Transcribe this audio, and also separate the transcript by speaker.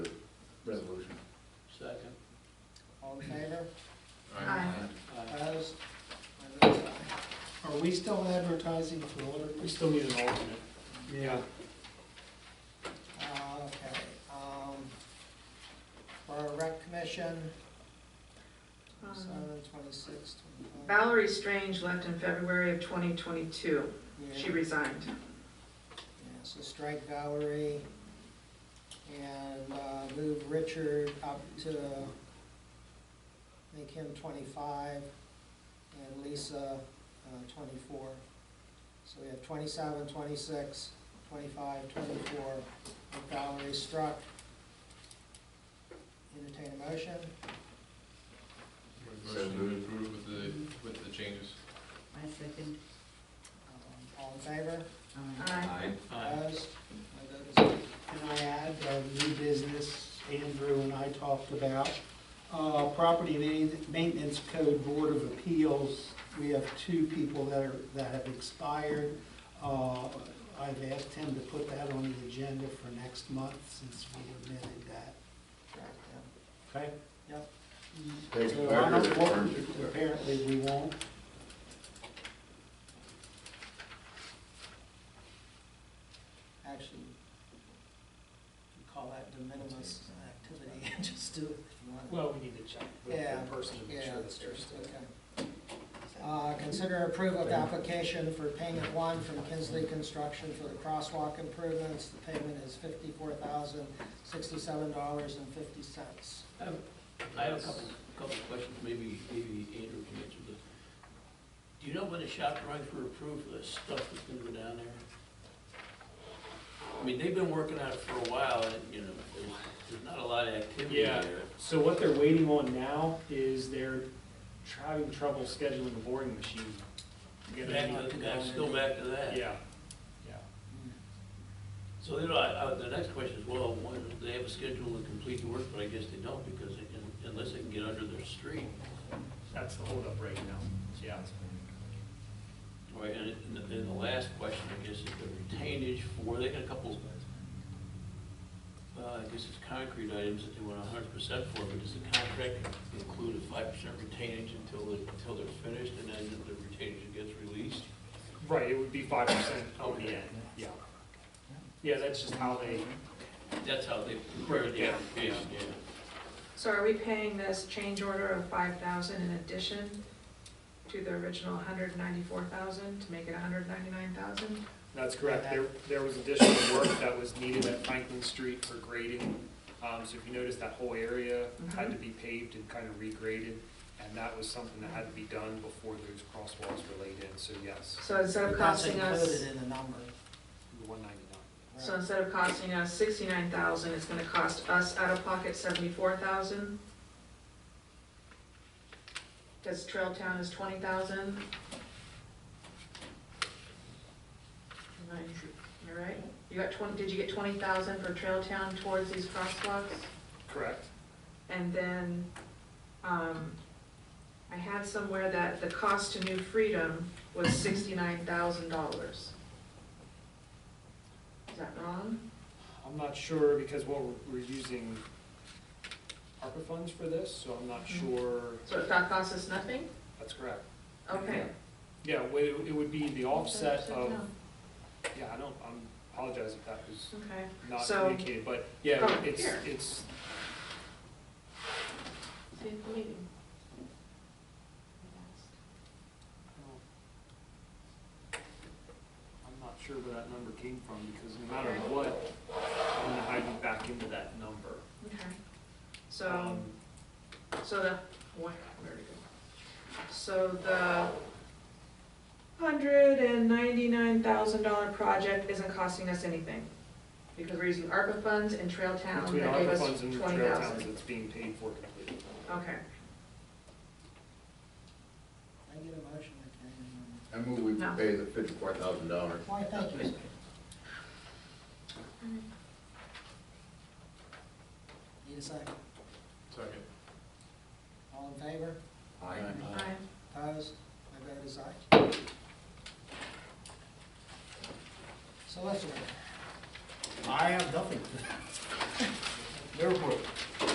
Speaker 1: favor?
Speaker 2: Aye.
Speaker 3: Uh,
Speaker 1: Opposed? I vote aye. Are we still advertising for
Speaker 3: We
Speaker 1: alderman?
Speaker 3: still need an alternate.
Speaker 4: Yeah,
Speaker 1: Uh, Okay. um, For our rec commission,
Speaker 2: Um,
Speaker 1: seven, twenty-six, twenty-five.
Speaker 2: Valerie Strange left in February of 2022.
Speaker 1: Yeah,
Speaker 2: She resigned.
Speaker 1: yeah, So strike Valerie and uh, move Richard up to, make him twenty-five and Lisa uh, twenty-four. So we have 27, 26, 25, 24. with Valerie struck. Entertain a motion?
Speaker 5: Motion to approve with the, with the changes.
Speaker 6: I second.
Speaker 1: Um, All in favor?
Speaker 6: Aye.
Speaker 2: Aye.
Speaker 3: Aye.
Speaker 1: Opposed? My vote is
Speaker 4: Can I add, uh, new business Andrew and I talked about, uh, property Ma- maintenance code board of appeals. We have two people that are, that have expired. Uh, I've asked him to put that on the agenda for next month since we admitted that,
Speaker 1: struck, yeah.
Speaker 4: okay?
Speaker 1: Yep.
Speaker 4: So I don't want- Apparently we won't.
Speaker 1: actually we call that de minimis activity, just do it if you want.
Speaker 3: Well, we need to check with
Speaker 1: Yeah,
Speaker 3: the person to make
Speaker 1: Yeah,
Speaker 3: sure that they're still.
Speaker 1: okay. Uh, Consider approval of application for payment one from Kinsley Construction for the crosswalk improvements. The payment is fifty-four thousand, sixty-seven dollars and fifty cents.
Speaker 7: I have a couple, couple of questions, maybe, maybe Andrew can answer this. Do you know when the shop drawings were approved for the stuff that's gonna go down there? I mean, they've been working on it for a while, and, you know, there's, there's not a lot of activity
Speaker 3: Yeah.
Speaker 7: there.
Speaker 3: So what they're waiting on now is they're tr- having trouble scheduling the boring machine. to get it
Speaker 7: Back
Speaker 3: out.
Speaker 7: to, that's still back to that.
Speaker 3: Yeah, yeah.
Speaker 7: So then I, I, the next question is, well, when, do they have a schedule to complete the work, but I guess they don't, because they can, unless they can get under their street.
Speaker 3: That's the holdup right now, yeah.
Speaker 7: Right, and and then the last question, I guess, is the retainage for, they got a couple, uh, I guess it's concrete items that they want hundred percent for, but does the contract include a five percent retainage until, the- until they're finished, and then the retainage gets released?
Speaker 3: Right, it would be five percent on the end, yeah. Yeah, that's just how they,
Speaker 7: That's how they prepare the
Speaker 3: Yeah.
Speaker 7: application, yeah.
Speaker 2: So are we paying this change order of 5,000 in addition to the original 194,000 to make it 199,000?
Speaker 3: that's correct. There, there was additional work that was needed at Franklin Street for grading. Um, so if you notice, that whole area had to be paved and kind of regraded, and that was something that had to be done before those crosswalks were laid in, so yes,
Speaker 2: So instead of costing
Speaker 1: That's
Speaker 2: us,
Speaker 1: included in the number.
Speaker 3: the one ninety-nine.
Speaker 2: so instead of costing us 69,000, it's gonna cost us out of pocket 74,000? Because Trail Town is 20,000? Am I, you're right? You got 20, did you get 20,000 for Trail Town towards these crosswalks?
Speaker 3: Correct?
Speaker 2: And then, um, I had somewhere that the cost to New Freedom was sixty-nine thousand dollars. Is that wrong?
Speaker 3: I'm not sure, because what we're- we're using ARPA funds for this, so I'm not
Speaker 2: Mm-hmm.
Speaker 3: sure
Speaker 2: So if that costs us nothing?
Speaker 3: that's correct.
Speaker 2: Okay.
Speaker 3: Yeah, wa- it would be the offset of, yeah, I don't, I apologize if that was
Speaker 2: Okay,
Speaker 3: not
Speaker 2: So-
Speaker 3: communicated, but yeah,
Speaker 2: Oh,
Speaker 3: it's,
Speaker 2: here.
Speaker 3: it's,
Speaker 2: see you at the meeting.
Speaker 3: I'm not sure where that number came from, because no matter what, I'm gonna hide you back into that number.
Speaker 2: Okay. So,
Speaker 3: Um,
Speaker 2: so the, where, where did it go? So the hundred and ninety-nine thousand dollar project isn't costing us anything because we're using ARPA funds and Trail Town
Speaker 3: Between
Speaker 2: that gave
Speaker 3: ARPA
Speaker 2: us
Speaker 3: funds and the
Speaker 2: twenty
Speaker 3: trail towns,
Speaker 2: thousand.
Speaker 3: it's being paid for completely.
Speaker 2: Okay.
Speaker 1: I get a motion, I
Speaker 5: I move we
Speaker 2: No.
Speaker 5: pay the fifty-four thousand dollars.
Speaker 1: can. Why, thank you. sir. Need a second?
Speaker 5: Second.
Speaker 1: All in favor?
Speaker 2: Aye.
Speaker 1: Opposed? My vote is aye. Solicitor,
Speaker 4: I have nothing. Therefore,